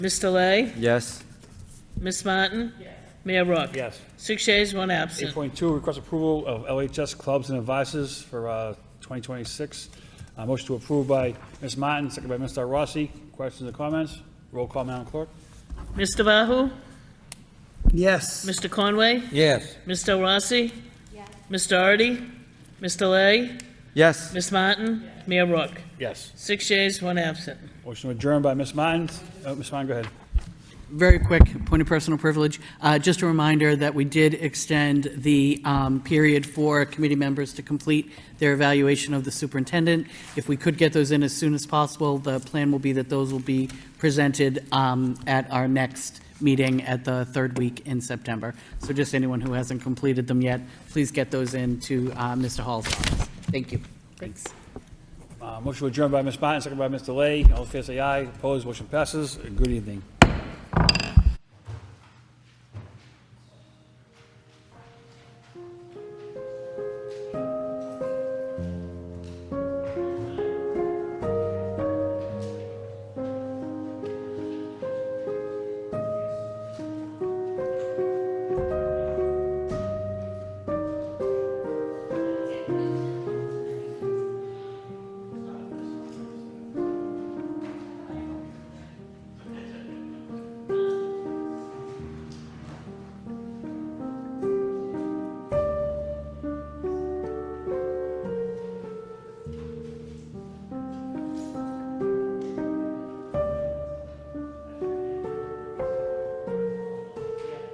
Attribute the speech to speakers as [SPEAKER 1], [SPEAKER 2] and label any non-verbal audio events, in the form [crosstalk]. [SPEAKER 1] Ms. Delay?
[SPEAKER 2] Yes.
[SPEAKER 1] Ms. Martin? Mayor Rourke?
[SPEAKER 3] Yes. [clears throat]
[SPEAKER 1] Six yeas, one absent.
[SPEAKER 3] 8.2, request approval of LHS clubs and advices for uh, 2026. Uh, Motion to approve by Ms. Martin, second by Mr. Rossi. Questions or comments? Roll call, Madam Clerk.
[SPEAKER 1] Mr. Bahu?
[SPEAKER 4] Yes.
[SPEAKER 1] Mr. Conway?
[SPEAKER 2] Yes.
[SPEAKER 1] Ms. Del Rossi? Ms. Doherty? Ms. Delay?
[SPEAKER 2] Yes.
[SPEAKER 1] Ms. Martin? Mayor Rourke?
[SPEAKER 3] Yes.
[SPEAKER 1] Six yeas, one absent.
[SPEAKER 3] Motion to adjourn by Ms. Martin. Uh, Ms. Martin, go ahead.
[SPEAKER 5] Very quick, point of personal privilege. Uh, Just a reminder that we did extend the um, period for committee members to complete their evaluation of the superintendent. If we could get those in as soon as possible, the plan will be that those will be presented um, at our next meeting at the third week in September. So just anyone who hasn't completed them yet, please get those in to uh, Mr. Hall's office. Thank you. Thanks.
[SPEAKER 3] Uh, Motion to adjourn by Ms. Martin, second by Mr. Lay. All in favor, say aye. Opposed, motion passes. Good evening.